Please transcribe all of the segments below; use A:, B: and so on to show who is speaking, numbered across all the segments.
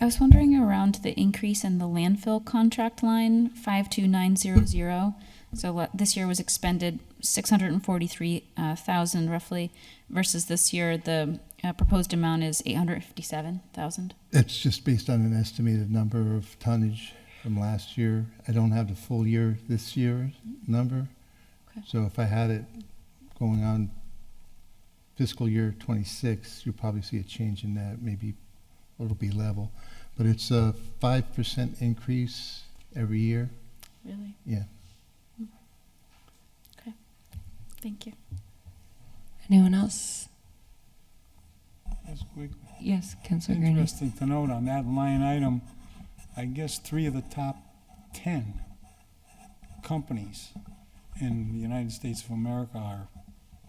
A: I was wondering around the increase in the landfill contract line, 52900. So what- this year was expended 643,000 roughly versus this year, the uh, proposed amount is 857,000.
B: It's just based on an estimated number of tonnage from last year. I don't have the full year, this year number.
A: Okay.
B: So if I had it going on fiscal year twenty-six, you'll probably see a change in that, maybe it'll be level. But it's a five percent increase every year,
A: Really?
B: yeah.
A: Thank you.
C: Anyone else?
D: That's quick.
C: Yes, Councilor Green.
D: Interesting to note on that line item, I guess three of the top ten companies in the United States of America are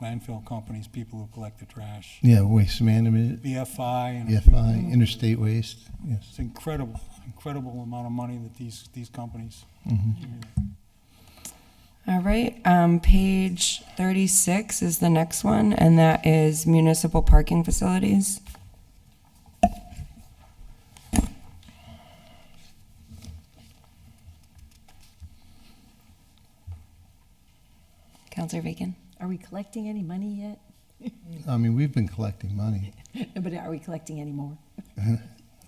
D: landfill companies, people who collect the trash.
B: Yeah, waste management,
D: BFI and. a few-
B: EFI, interstate waste, yes.
D: It's incredible, incredible amount of money that these, these companies.
B: Mhm.
C: All right, um, page thirty-six is the next one, and that is municipal parking facilities. Counselor Bacon?
E: Are we collecting any money yet?
B: I mean, we've been collecting money.
E: But are we collecting any more?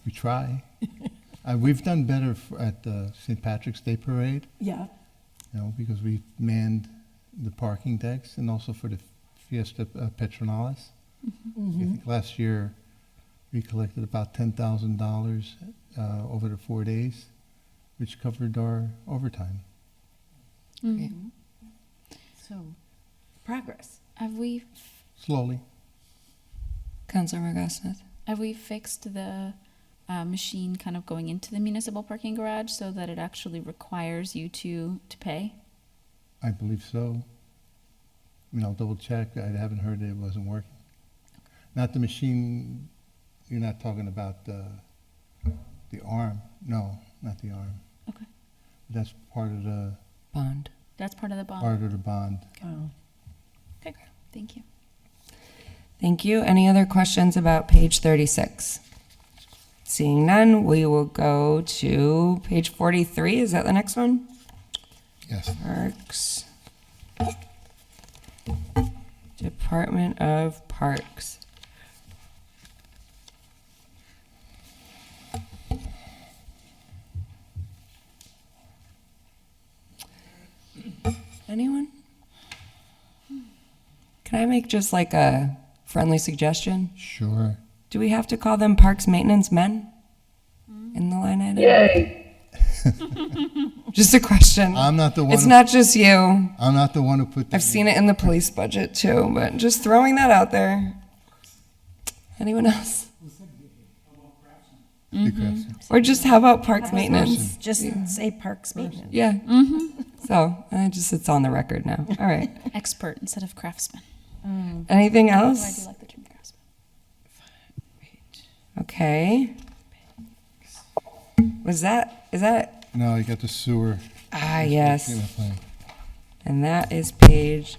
B: We try. Uh, we've done better f- at the St. Patrick's Day Parade.
E: Yeah,
B: you know, because we've manned the parking decks and also for the Fiesta uh, Petronalis.
A: Mm-hmm.
B: I think last year we collected about $10,000 uh, over the four days, which covered our overtime.
A: Mm-hmm.
C: Okay.
E: so progress.
A: Have we
B: Slowly.
C: Counselor McGrath-Smith?
A: Have we fixed the uh, machine kind of going into the municipal parking garage so that it actually requires you to to pay?
B: I believe so. I mean, I'll double check. I haven't heard that it wasn't working. Not the machine, you're not talking about the, the arm. No, not the arm.
A: Okay.
B: That's part of the,
C: Bond.
A: That's part of the bond.
B: part of the bond.
E: Oh.
A: Thank you.
C: Thank you. Any other questions about page 36? Seeing none, we will go to page 43. Is that the next one?
B: Yes.
C: Parks. Department of Parks. Anyone? Can I make just like a friendly suggestion?
B: Sure.
C: Do we have to call them Parks Maintenance Men in the line item? Yay! Just a question.
B: I'm not the one.
C: It's
B: who-
C: not just you.
B: I'm not the one who put.
C: I've seen it in the police budget too, but just throwing that out there. Anyone else?
B: the question.
C: Or just how about parks maintenance?
E: Just say parks maintenance.
C: Yeah.
A: Mm-hmm.
C: So I just it's on the record now. All right.
A: Expert instead of craftsman.
C: Anything
A: Oh, I do
C: else?
A: like the term craftsman.
C: Okay. Was that is that
B: No, I got the sewer.
C: ah
B: Came
C: yes.
B: up on
C: And that is page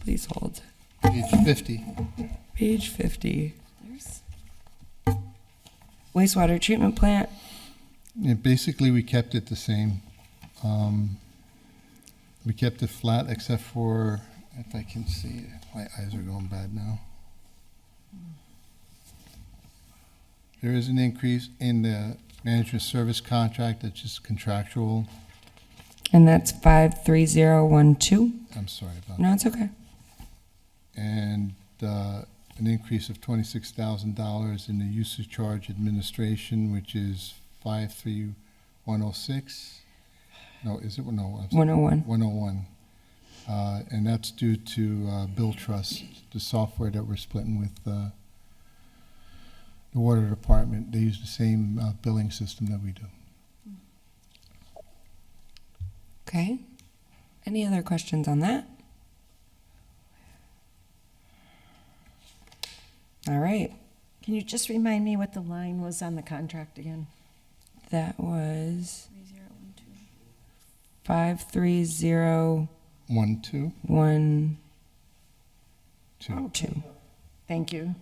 C: please hold.
B: Page fifty.
C: Page fifty. Wastewater treatment plant.
B: Yeah, basically, we kept it the same. Um, we kept it flat except for, if I can see, my eyes are going bad now. There is an increase in the management service contract that's just contractual.
C: And that's five three zero one two.
B: I'm sorry about that.
C: No, it's okay.
B: and uh, an increase of twenty-six thousand dollars in the usage charge administration, which is five three one oh six. No, is it, no, I'm sorry,
C: One oh one.
B: one oh one. Uh, And that's due to uh, Bill Trust, the software that we're splitting with uh, the water department. They use the same uh, billing system that we do.
C: Okay. Any other questions on that? All right.
E: Can you just remind me what the line was on the contract again?
C: That was
A: Three zero one two.
C: 53012.
B: One, two, two.
E: Thank you.